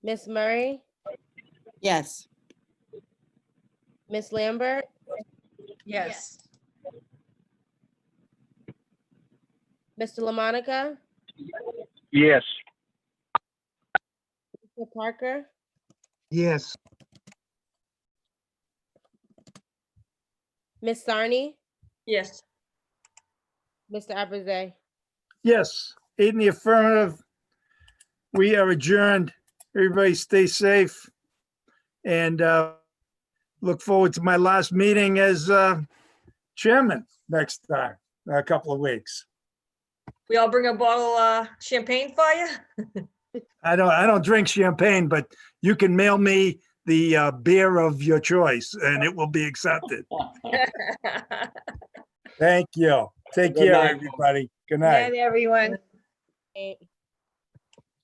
Miss Murray, Yes. Miss Lambert, Yes. Mr. LaMonica, Yes. Mr. Parker, Yes. Miss Sarni, Yes. Mr. Abraze. Yes, eight in the affirmative. We are adjourned. Everybody stay safe. And uh, look forward to my last meeting as uh, chairman next time, in a couple of weeks. We all bring a bottle uh champagne for you? I don't, I don't drink champagne, but you can mail me the uh, beer of your choice and it will be accepted. Thank you. Take Good care, night. everybody. Good night. Night, everyone. Eight.